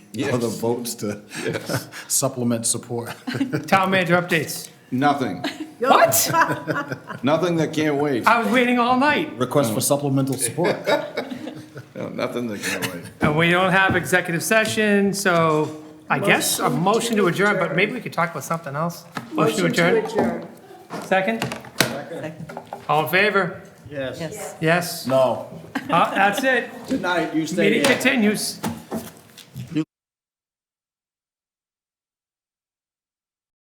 other votes to supplement support. Town manager updates. Nothing, What? nothing that can't wait, I was waiting all night. Request for supplemental support. No, nothing that can't wait. And we don't have executive session, so I guess a motion to adjourn, but maybe we could talk about something else. Motion to adjourn, adjourn. second? All in favor? Yes. Yes. No. Uh, That's it. Good night, you stay Meeting there. continues.